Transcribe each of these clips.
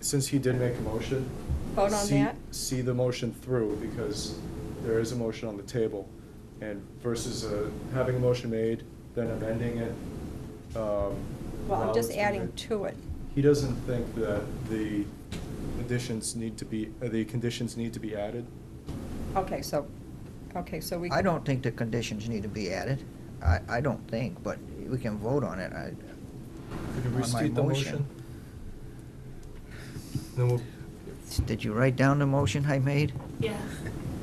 since he did make a motion. Vote on see- that? See the motion through, because there is a motion on the table, and versus uh, having a motion made, then amending it. um, Well, Well, I'm just adding to it. He doesn't think that the additions need to be, uh, the conditions need to be added? Okay, so, okay, so we. I don't think the conditions need to be added. I, I don't think, but we can vote on it. I, Could you On my restate the motion? motion. Then we'll, did you write down the motion I made? Yeah.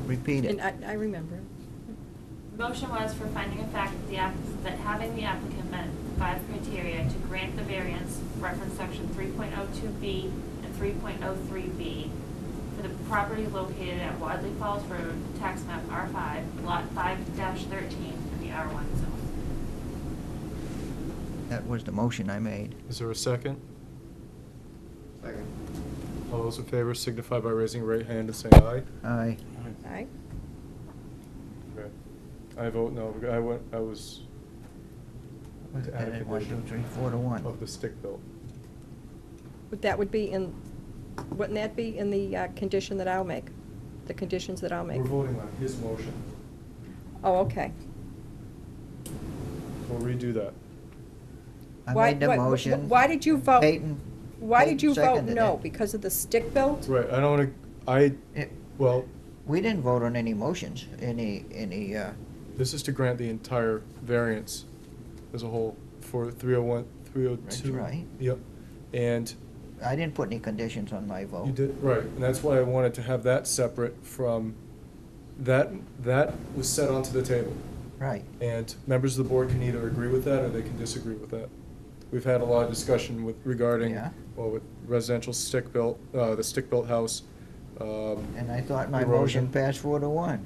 Repeat And it. I, I remember. Mm. Motion was for finding a fact that the app, that having the applicant met five criteria to grant the variance, reference section three point oh two B and three point oh three B for the property located at Wadley Falls Road, tax map R five, lot five thirteen, in the R one zone. That was the motion I made. is there a second? Second. All those in favor signify by raising your right hand and saying aye. Aye. Aye. Okay. I vote no, because I went, I was Was to add a it one, condition two, three, four to one? of the stick built. But that would be in, wouldn't that be in the uh, condition that I'll make? The conditions that I'll make? We're voting on his motion. Oh, okay. We'll redo that. I Why- made the why- why- motion. Why did you vote? Peyton. Why Peyton did you vote seconded no? it. Because of the stick built? Right, I don't wanna, I, It- well, We didn't vote on any motions, any, any, uh, this is to grant the entire variance as a whole for three oh one, three oh two. That's right. Yep, and I didn't put any conditions on my vote. You did, right, and that's why I wanted to have that separate from, that, that was set onto the table. Right. And members of the board can either agree with that or they can disagree with that. We've had a lot of discussion with, regarding, Yeah. well, with residential stick-built, uh, the stick-built house. um, And I thought my erosion. motion passed four to one.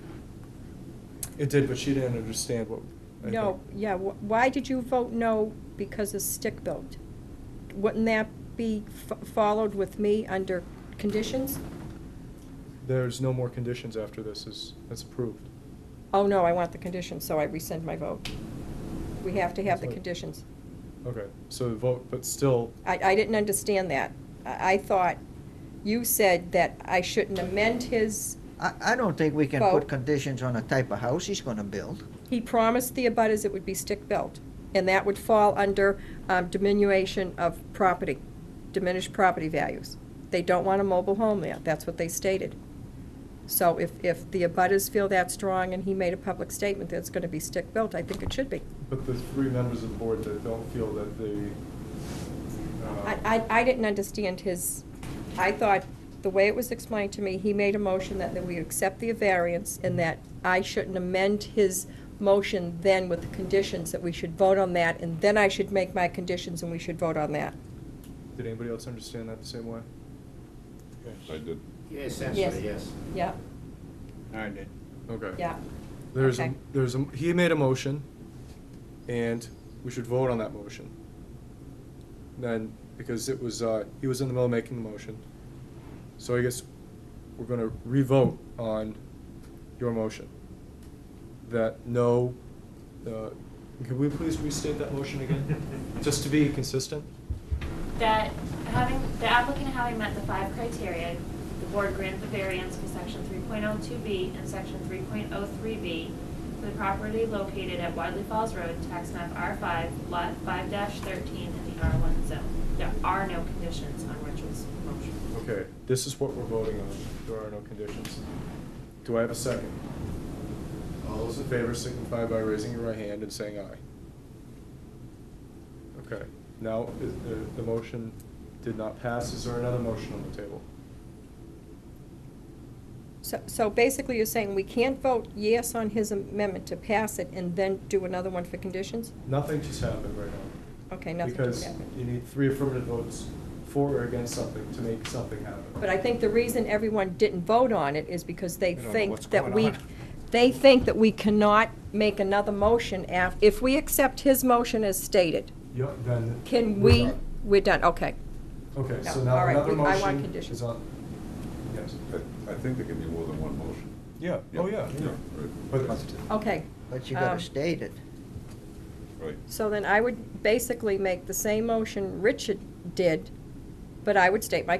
It did, but she didn't understand what. I No, think. yeah, wh- why did you vote no because of stick built? Wouldn't that be f- followed with me under conditions? There's no more conditions after this is, that's approved. Oh, no, I want the conditions, so I rescind my vote. We have to have the Sorry. conditions. Okay, so the vote, but still, I, I didn't understand that. I, I thought you said that I shouldn't amend his, I, I don't think we can Vote. put conditions on the type of house he's gonna build. he promised the abutters it would be stick built, and that would fall under um, diminution of property, diminished property values. They don't want a mobile home there, that's what they stated. So if, if the abutters feel that strong and he made a public statement that it's gonna be stick built, I think it should be. but the three members of the board that don't feel that uh, the. I, I, I didn't understand his, I thought, the way it was explained to me, he made a motion that, that we accept the variance and that I shouldn't amend his motion then with the conditions, that we should vote on that, and then I should make my conditions and we should vote on that. Did anybody else understand that the same way? I did. Yeah, essentially, Yes. yes. Yeah, I did. Okay. yeah. There's, a Okay. there's, a he made a motion, and we should vote on that motion. Then, because it was, uh, he was in the middle of making the motion. So I guess we're gonna revote on your motion. That no, uh, can we please restate that motion again? Just to be consistent? That having, the applicant having met the five criteria, the board granted the variance for section three point oh two B and section three point oh three B for the property located at Wadley Falls Road, tax map R five, lot five thirteen in the R one zone. There are no conditions on Richard's motion. Okay, this is what we're voting on. There are no conditions. Do I have a second? All those in favor signify by raising your right hand and saying aye. Okay, now, is the, the motion did not pass. Is there another motion on the table? So, so basically you're saying we can't vote yes on his amendment to pass it and then do another one for conditions? Nothing just happened right now. Okay, nothing just happened. Because you need three affirmative votes for or against something to make something happen. But I think the reason everyone didn't vote on it is because they They don't know what's think that going we, on. they think that we cannot make another motion af, if we accept his motion as stated, Yep, then. can we're we, done. we're done, okay. Okay, No, so now all right, another we- I want motion conditions. is on. Yes. I, I think there can be more than one motion. Yeah, oh, yeah. Yeah, But- right. Okay. But you gotta Um, state it. Right. So then I would basically make the same motion Richard did, but I would state my